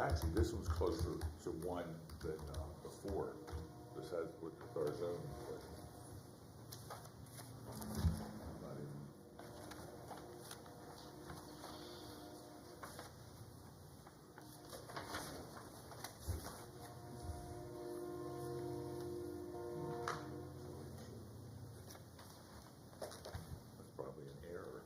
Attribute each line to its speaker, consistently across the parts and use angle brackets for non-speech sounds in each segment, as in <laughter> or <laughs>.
Speaker 1: actually, this one's closer to one than, uh, before, this has, with our zone. but- I'm not even- That's probably an error.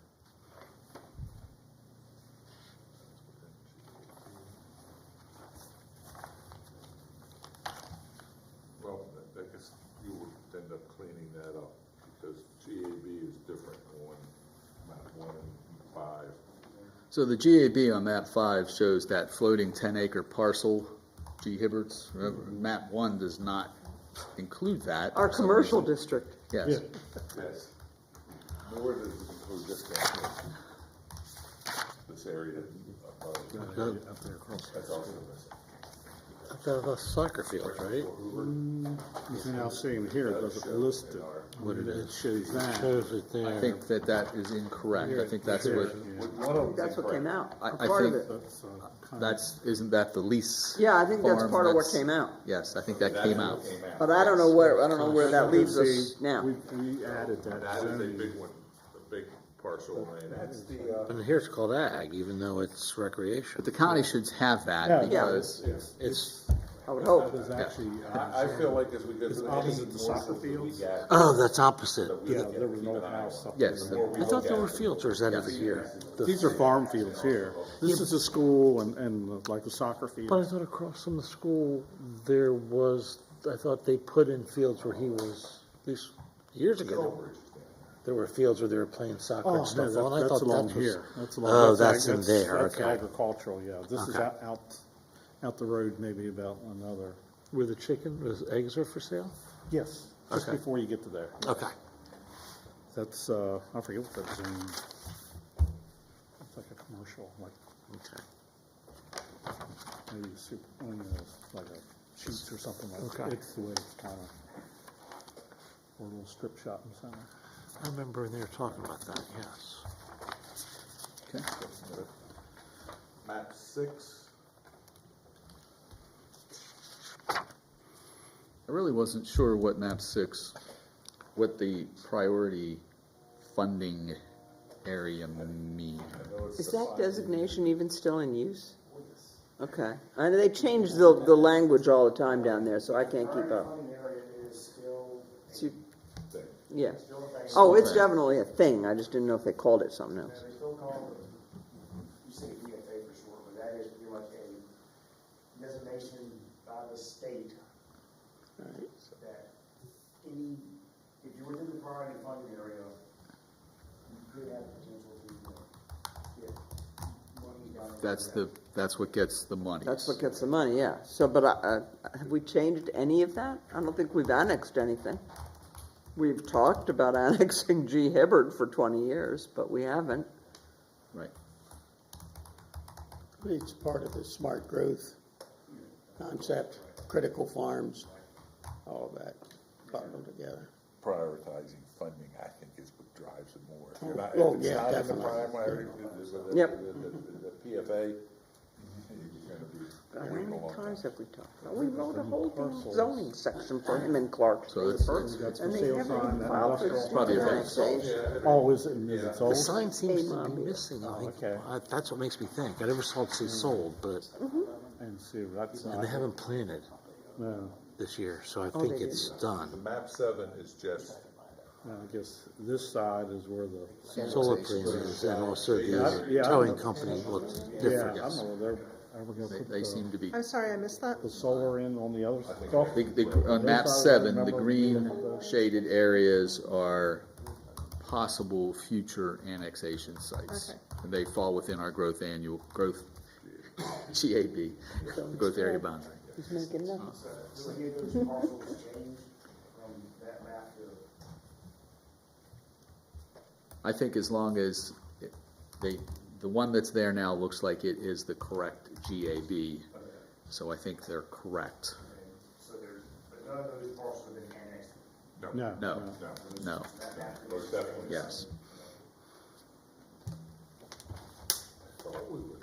Speaker 1: Well, I- I guess you would end up cleaning that up, because GAB is different on map one and five.
Speaker 2: So the GAB on map five shows that floating ten acre parcel, G Hibbert's, Remember, map one does not include that.
Speaker 3: Our
Speaker 2: for some
Speaker 3: commercial
Speaker 2: reason.
Speaker 3: district.
Speaker 2: Yes,
Speaker 1: Yes. Nor does it include this down here. This area above,
Speaker 4: Up there across,
Speaker 1: that's also missing.
Speaker 4: up there across the soccer field, right?
Speaker 5: You're now seeing here, it doesn't list it,
Speaker 4: What it
Speaker 5: it
Speaker 4: is.
Speaker 5: shows that.
Speaker 4: Shows it there.
Speaker 2: I think that that is incorrect, I think that's what,
Speaker 1: Would one of
Speaker 3: That's what came out,
Speaker 2: I-
Speaker 3: or
Speaker 2: I
Speaker 3: part of
Speaker 2: think-
Speaker 3: it.
Speaker 5: That's, uh, kind of-
Speaker 2: that's, isn't that the lease?
Speaker 3: Yeah, I think that's
Speaker 2: farm?
Speaker 3: part of what
Speaker 2: That's-
Speaker 3: came out,
Speaker 2: Yes, I think that came out.
Speaker 3: but I don't know where, I don't know where that leaves us
Speaker 5: See,
Speaker 3: now.
Speaker 5: We, we added that
Speaker 1: That is a
Speaker 5: zoning.
Speaker 1: big one, a big parcel of land.
Speaker 6: That's the, uh,
Speaker 4: And here's called ag, even though it's recreation.
Speaker 2: But the county should have
Speaker 5: Yeah,
Speaker 2: that
Speaker 5: yeah.
Speaker 2: because
Speaker 4: It's,
Speaker 3: I would
Speaker 4: Oh.
Speaker 5: That
Speaker 3: hope.
Speaker 5: is actually, uh,
Speaker 1: I, I feel like as we go
Speaker 5: It's
Speaker 1: through.
Speaker 5: opposite
Speaker 1: any
Speaker 5: the
Speaker 1: more
Speaker 5: soccer
Speaker 1: that we
Speaker 5: fields.
Speaker 1: get,
Speaker 4: oh, that's opposite.
Speaker 1: that we
Speaker 5: yeah,
Speaker 1: look at,
Speaker 5: there was
Speaker 1: keep
Speaker 5: no
Speaker 1: an eye
Speaker 5: house
Speaker 1: on.
Speaker 5: up there.
Speaker 2: Yes,
Speaker 1: The more we
Speaker 4: I thought
Speaker 1: look
Speaker 4: there
Speaker 1: at
Speaker 4: were
Speaker 1: it,
Speaker 4: filters out of here.
Speaker 5: These are farm fields here. This is the school and, and like the soccer
Speaker 4: But I
Speaker 5: field.
Speaker 4: thought across from the school, there was, I thought they put in fields where he was, these, years ago,
Speaker 1: Strawberries.
Speaker 4: there were fields where they were playing soccer
Speaker 5: Oh,
Speaker 4: and
Speaker 5: no,
Speaker 4: stuff.
Speaker 5: that-
Speaker 4: and I
Speaker 5: that's
Speaker 4: thought
Speaker 5: along
Speaker 4: that was-
Speaker 5: here. That's along-
Speaker 4: Oh,
Speaker 5: ag-
Speaker 4: that's in there,
Speaker 5: that's
Speaker 4: okay.
Speaker 5: Agricultural, yeah. This is
Speaker 4: Okay.
Speaker 5: out, out, out the road maybe about another,
Speaker 4: Where the chicken, those eggs are for sale?
Speaker 5: yes, just
Speaker 4: Okay.
Speaker 5: before you get to there.
Speaker 4: Okay.
Speaker 5: That's, uh, I forget what that's in. It's like a commercial, like
Speaker 4: Okay.
Speaker 5: maybe super, one of those, like a sheets or something like that.
Speaker 4: Okay.
Speaker 5: It's the way it's kind of, or a little strip shopping center.
Speaker 4: I remember when they were talking about that, yes.
Speaker 1: Map six,
Speaker 2: I really wasn't sure what map six, what the priority funding area mean.
Speaker 3: Is that designation even still in use? Okay, I know they change the, the language all the time down there, so I can't keep
Speaker 6: current
Speaker 3: up.
Speaker 6: funding area is still,
Speaker 3: So you-
Speaker 1: thing.
Speaker 3: Yeah,
Speaker 6: still a thing.
Speaker 3: oh, it's definitely a thing, I just didn't know if they called it something
Speaker 6: Yeah,
Speaker 3: else.
Speaker 6: They still call it, you say DFA for short, but that is pretty much a designation by the state that any, if you're within the priority funding area, you could have potential to uh, get money down. there.
Speaker 2: That's the, that's what gets the money.
Speaker 3: That's what gets the money, yeah, so, but I, I- have we changed any of that? I don't think we've annexed anything. We've talked about <laughs> annexing G Hibbard for twenty years, but we haven't.
Speaker 2: Right.
Speaker 7: But It's part of the smart growth concept, critical farms, all of that bundled together.
Speaker 1: prioritizing funding, I think, is what drives it more. If you're not-
Speaker 7: Oh,
Speaker 1: if it's
Speaker 7: yeah,
Speaker 1: not in the
Speaker 7: definitely.
Speaker 1: primary, the- the- the-
Speaker 3: Yep.
Speaker 1: The the- the PFA, you're gonna be.
Speaker 3: God, How
Speaker 1: waiting a
Speaker 3: many
Speaker 1: long time.
Speaker 3: times have we talked about, we wrote a whole damn zoning section for him in Clark.
Speaker 2: So it's-
Speaker 5: That's
Speaker 3: And
Speaker 5: for
Speaker 3: they
Speaker 5: sale
Speaker 3: never
Speaker 5: sign,
Speaker 3: even
Speaker 5: that
Speaker 3: filed
Speaker 5: industrial-
Speaker 3: for
Speaker 2: Probably affects
Speaker 3: annexation.
Speaker 5: Oh, is it, is it
Speaker 4: The
Speaker 5: old?
Speaker 4: sign seems to
Speaker 3: Mom,
Speaker 4: be
Speaker 3: yeah.
Speaker 4: missing, I think.
Speaker 5: Oh, okay. Hmm.
Speaker 4: I- That's what makes me think. I never saw it say sold, but,
Speaker 5: And see, that's
Speaker 4: and
Speaker 5: not,
Speaker 4: they haven't planted
Speaker 5: no,
Speaker 4: this year, so I
Speaker 3: they
Speaker 4: think
Speaker 3: did.
Speaker 4: it's
Speaker 1: The
Speaker 4: done.
Speaker 1: map seven is just,
Speaker 5: no, I guess this side is where the.
Speaker 4: Solar planters and also
Speaker 5: Yeah,
Speaker 4: the
Speaker 5: I-
Speaker 4: towing company looked
Speaker 5: Yeah, I
Speaker 4: different.
Speaker 5: don't know, they're, are we gonna
Speaker 2: They,
Speaker 5: put
Speaker 2: they
Speaker 5: the,
Speaker 2: seem to be,
Speaker 8: I'm sorry, I missed that.
Speaker 5: the solar in on the other Oh, golf?
Speaker 2: the, the, on map seven, the green shaded areas are possible future annexation sites.
Speaker 8: Okay.
Speaker 2: And they fall within our growth annual, growth, <laughs> GAB, growth area boundary.
Speaker 3: He's making nothing.
Speaker 6: So any of those parcels changed from that map to,
Speaker 2: I think as long as it- they, the one that's there now looks like it is the correct GAB, so I think they're correct.
Speaker 6: and so there's, but none of those parcels have been annexed.
Speaker 2: No,
Speaker 5: No.
Speaker 2: no, no,
Speaker 6: That map
Speaker 1: most definitely.
Speaker 2: yes.
Speaker 1: I thought we were